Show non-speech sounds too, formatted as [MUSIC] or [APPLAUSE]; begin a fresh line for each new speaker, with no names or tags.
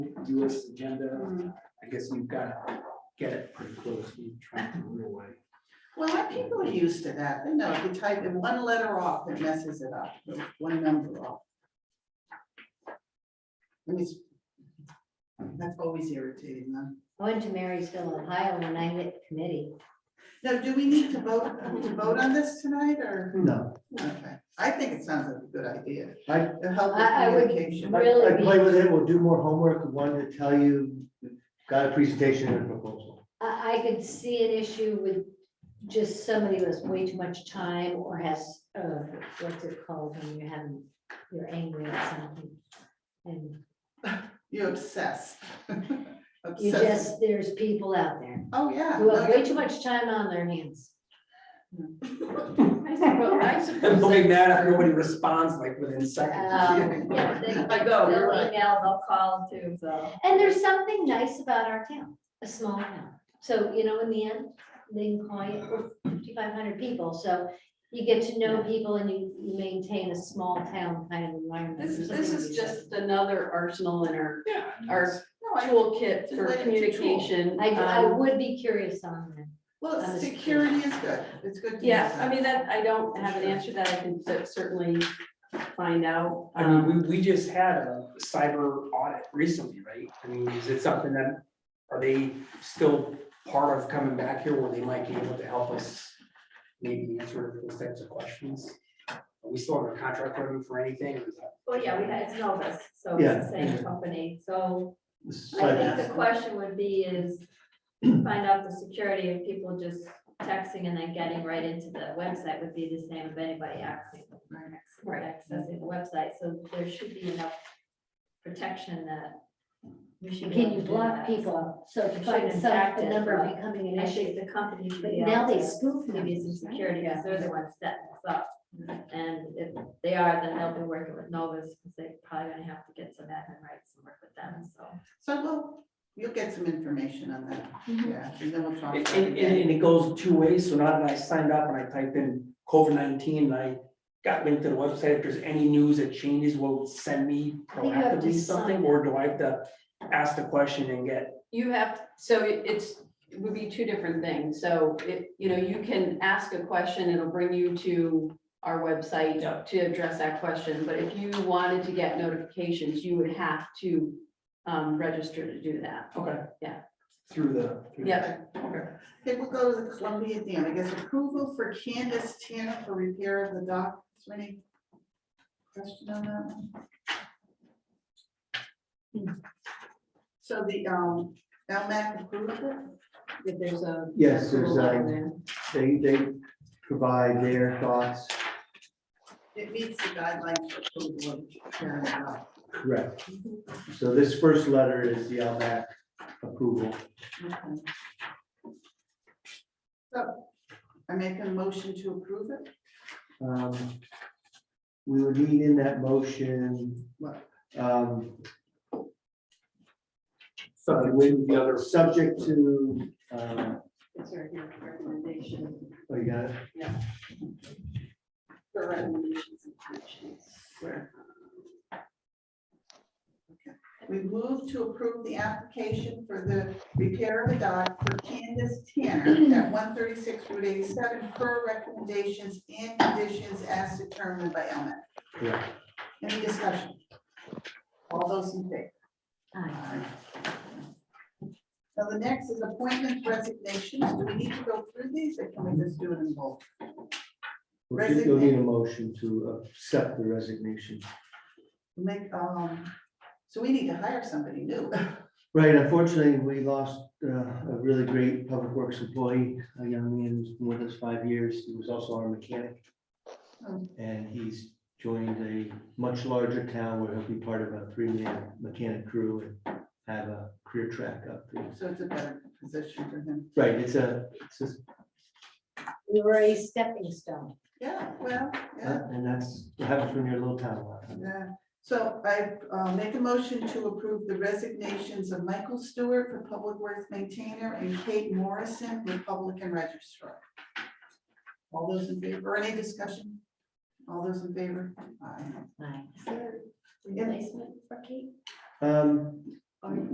US agenda,
Mm.
I guess you've got to get it pretty close, you try to run away.
Well, our people are used to that. They know if you type in one letter off, it messes it up, or one number off. I mean, it's- that's always irritating them.
I went to Marysville, Ohio, and I hit committee.
Now, do we need to vote, are we to vote on this tonight or?
No,
Okay, I think it sounds like a good idea.
I-
It'll help with
I- I would-
communication.
I
Really,
I play
we-
with it, we'll do more homework, one to tell you, got a presentation and a
[LAUGHS]
proposal.
I, I could see an issue with just somebody who has way too much time or has, uh, what's it called when you're having, you're angry at something. And
You [LAUGHS] obsess.
you
Obsess.
just, there's people out there
Oh, yeah.
who have
No,
way too much time on their hands.
I suppose, I
And
suppose.
looking at it, nobody responds like within seconds.
[LAUGHS] Um, yeah, they-
I go,
they'll
you're right.
email,
I'll call too, so.
And there's something nice about our town, a small town. So, you know, in the end, they can call you fifty-five hundred people, so you get to know people and you you maintain a small town kind of environment.
This,
There's
this
something to
is
be said.
just another arsenal in our,
[LAUGHS] Yeah.
our
I-
toolkit
It's a
for
way- it's a tool.
communication.
I, I
um,
would be curious on that.
Well,
I'm a-
security is good. It's good. to
Yeah,
use
I
that.
mean, that, I don't have an answer that I can cer- certainly find out.
I mean,
um,
we, we just had a cyber audit recently, right? I mean, is it something that, are they still part of coming back here where they might be able to help us? Maybe answer those types of questions? Are we still under contract with them for anything? or is that-
Well, yeah, we had, it's Novus, so
Yeah.
it's the same company, so
This is
I
like-
think the question would be is find out the security of people just texting and then getting right into the website would be the same if anybody accessing accessing the website, so there should be enough protection that we should. be
Can
able
you
to do
block
that.
people? So if you
It
find
shouldn't
some,
impact
the
it,
number
but
becoming
I
an issue.
think the company should
But
be.
now
able
they
to-
spoof
maybe
companies,
some
right?
security, because they're the ones setting this up. And if they are, then they'll be working with Novus, because they're probably gonna have to get some admin rights and work with them, so.
So we'll, you'll get some information on that. Yeah, and then we'll talk.
And,
about
and,
it.
and it goes two ways, so now that I signed up and I typed in COVID nineteen, I got linked to the website, if there's any news that changes, will it send me
think you have to
proactively something,
sign
or do I have to ask the question and get?
You have, so it- it's, it would be two different things. So it, you know, you can ask a question, it'll bring you to our
Yeah.
website to address that question, but if you wanted to get notifications, you would have to um, register to do that.
Okay.
Yeah.
Through the. through the-
Yeah.
Okay.
Okay, we'll go to the Columbia Dam. I guess approval for Candace Tanner for repair of the dock. Is there any question on that? one? So the, um, LMAC approved it?
If there's a.
Yes, there's,
approval
uh,
there.
They, they provide their thoughts,
It meets the guidelines for approval of repair of the dock.
correct. So this first letter is the LMAC approval.
Okay. So I make a motion to approve it?
Um, We would need in that motion,
What?
um,
So
with the other, subject to, uh,
It's right here, recommendation,
oh, you got it?
the recommendations and actions. Where?
We move to approve the application for the repair of a dock for Candace Tanner at one thirty-six Route eighty-seven per recommendations and conditions as determined by Elmet.
Correct.
Any discussion? All those in favor?
Aye.
Now, the next is appointment resignations. Do we need to go through these or can we just do it in bulk?
We'll do- You'll need a motion to accept the resignation.
Make, um, so we need to hire somebody new. [LAUGHS]
Right, unfortunately, we lost uh, a really great public works employee, a young man who's been with us five years. He was also our mechanic.
Oh.
And he's joined a much larger town where he'll be part of a three-man mechanic crew and have a career track up there.
So it's a better position for him.
Right, it's a, it's just,
We were a stepping stone.
Yeah, well, yeah.
uh, and that's what happens when you're a little town. a lot.
Yeah, so I uh, make a motion to approve the resignations of Michael Stewart, for Public Works Maintainer, and Kate Morrison, Republican Registrar. All those in favor, any discussion? All those in favor? Aye.
Aye.
Is there Replacement for Kate?
Um,
I-